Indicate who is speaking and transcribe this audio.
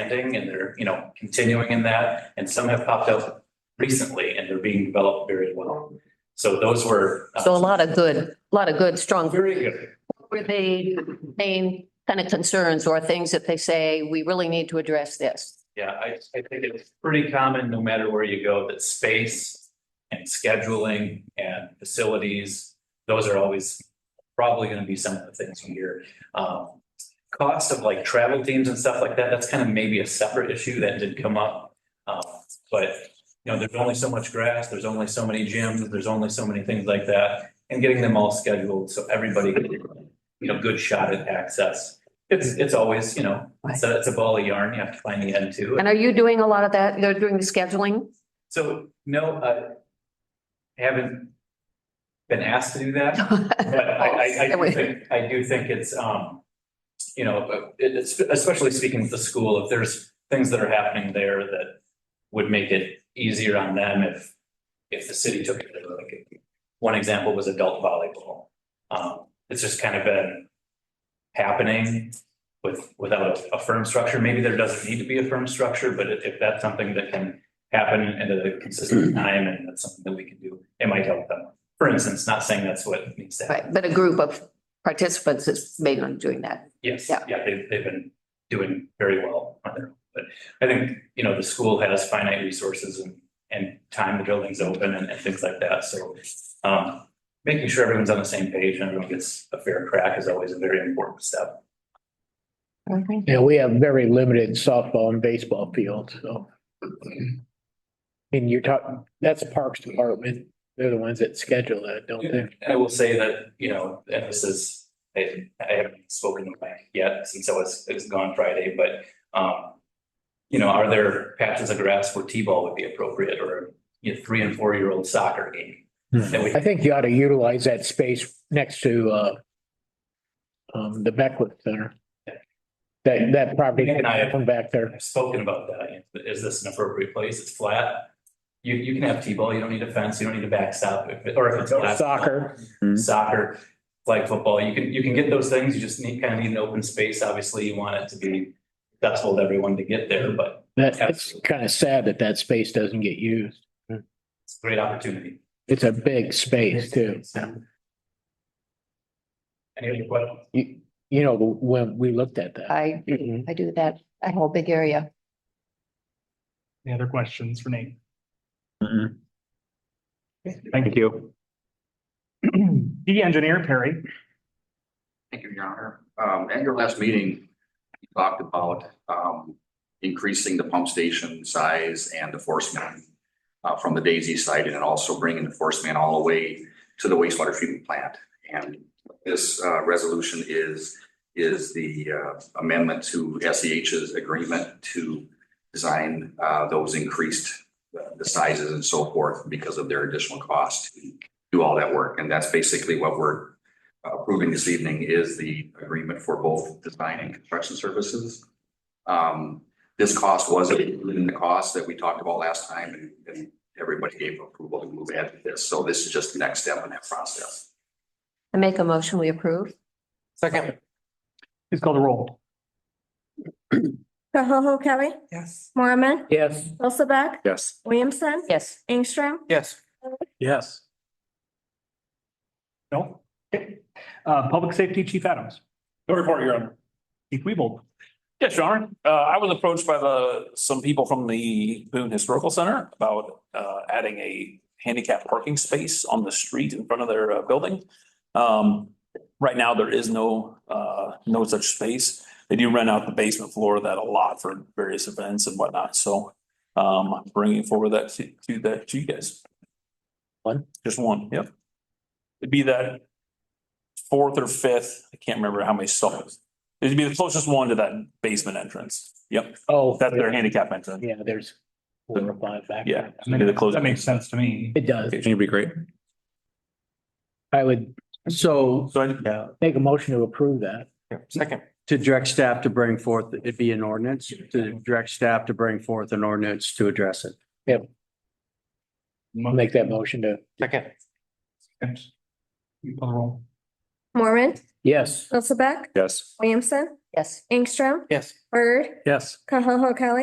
Speaker 1: expanding and they're, you know, continuing in that. And some have popped up recently and they're being developed very well. So those were. uh,
Speaker 2: So a lot of good, a lot of good, strong.
Speaker 1: Very good.
Speaker 2: Were they main kind of concerns or things that they say, we really need to address this?
Speaker 1: Yeah, I, I think it's pretty common, no matter where you go, that space and scheduling and facilities, those are always probably gonna be some of the things we hear. Um, cost of like travel teams and stuff like that, that's kind of maybe a separate issue that did come up. Um, but, you know, there's only so much grass, there's only so many gyms, there's only so many things like that. And getting them all scheduled so everybody, can you know, good shot at access. It's, it's always, you know, it's a, it's a ball of yarn, you have to find the end to.
Speaker 2: And are you doing a lot of that? You're doing the scheduling?
Speaker 1: So, no, uh, I haven't been asked to do that, but I, I, I do think, I do think it's, um, you know, it- it's, especially speaking with the school, if there's things that are happening there that would make it easier on them if, if the city took it, like, one example was adult volleyball. Um, it's just kind of been happening with, without a- a firm structure. Maybe there doesn't need to be a firm structure, but if, if that's something that can happen at a consistent time and that's something that we can do. It might help them. For instance, not saying that's what needs to happen.
Speaker 2: Right, but a group of participants is mainly doing that.
Speaker 1: Yes,
Speaker 2: Yeah.
Speaker 1: yeah, they've, they've been doing very well on their own. But I think, you know, the school has finite resources and, and time the building's open and, and things like that. So um, making sure everyone's on the same page and everyone gets a fair crack is always a very important step.
Speaker 3: Yeah, we have very limited softball and baseball fields, so. And you're talking, that's Parks Department. They're the ones that schedule that, don't they?
Speaker 1: And I will say that, you know, and this is, I, I haven't spoken to Mike yet since I was, it was gone Friday, but, um, you know, are there patches of grass where T-ball would be appropriate or, you know, three and four-year-old soccer game? That we,
Speaker 3: I think you ought to utilize that space next to, uh, um, the Beckwith Center. That, that property
Speaker 1: Nick and I-
Speaker 3: from back there.
Speaker 1: I've spoken about that. you know, Is this an appropriate place? It's flat. You, you can have T-ball. You don't need a fence. You don't need a backstop. If it- Or if it's.
Speaker 3: Or
Speaker 1: glass-
Speaker 3: soccer.
Speaker 1: soccer, flag football, you can, you can get those things, you just need, kind of need an open space, obviously, you want it to be accessible to everyone to get there, but
Speaker 3: That, it's kind of sad that that space doesn't get used.
Speaker 1: it's a great opportunity.
Speaker 3: It's a big space too.
Speaker 1: Any other questions?
Speaker 3: You, you know, when we looked at that.
Speaker 2: I, I do that, a whole big area.
Speaker 4: Any other questions for Nate?
Speaker 5: Thank you.
Speaker 4: The engineer, Perry.
Speaker 6: Thank you, Your Honor. Um, at your last meeting, you talked about, um, increasing the pump station size and the force man uh, from the Daisy side and also bringing the force man all the way to the wastewater treatment plant. And this, uh, resolution is, is the uh, amendment to SEH's agreement to design, uh, those increased, uh, the sizes and so forth because of their additional cost to do all that work. And that's basically what we're approving this evening is the agreement for both design and construction services. Um, this cost was included in the cost that we talked about last time and, and everybody gave approval to move ahead with this. So this is just the next step in that process.
Speaker 2: I make a motion, we approve.
Speaker 5: Second.
Speaker 4: Please call the roll.
Speaker 7: Koho Kelly,
Speaker 5: Yes.
Speaker 7: Mormon,
Speaker 3: Yes.
Speaker 7: Hilsaback,
Speaker 5: Yes.
Speaker 7: Williamson,
Speaker 2: Yes.
Speaker 7: Ingstrom,
Speaker 5: Yes. Yes.
Speaker 4: No? Okay. Uh, Public Safety Chief Adams.
Speaker 8: No report, Your Honor.
Speaker 4: Chief Weebold.
Speaker 8: Yes, Your Honor. Uh, I was approached by the, some people from the Boone Historical Center about, uh, adding a handicap parking space on the street in front of their uh, building. Um, right now, there is no, uh, no such space. They do rent out the basement floor of that a lot for various events and whatnot, so, um, I'm bringing forward that to, to that, to you guys.
Speaker 3: One?
Speaker 8: Just one, yep. It'd be that fourth or fifth, I can't remember how many stalls, It'd be the closest one to that basement entrance. Yep,
Speaker 3: Oh.
Speaker 8: that's their handicap entrance.
Speaker 3: Yeah, there's four or five back.
Speaker 8: Yeah.
Speaker 3: there.
Speaker 8: Maybe the closest.
Speaker 4: That makes sense to me.
Speaker 3: It does.
Speaker 8: It'd be great.
Speaker 3: I would, so
Speaker 8: So, I-
Speaker 5: Yeah.
Speaker 3: make a motion to approve that.
Speaker 5: Second.
Speaker 9: To direct staff to bring forth, it'd be an ordinance, to direct staff to bring forth an ordinance to address it.
Speaker 3: I'll make that motion to,
Speaker 5: Second.
Speaker 4: Please call the roll.
Speaker 7: Mormon,
Speaker 3: Yes.
Speaker 7: Hilsaback,
Speaker 5: Yes.
Speaker 7: Williamson,
Speaker 2: Yes.
Speaker 7: Ingstrom,
Speaker 5: Yes.
Speaker 7: Bird,
Speaker 4: Yes.
Speaker 7: Koho Kelly.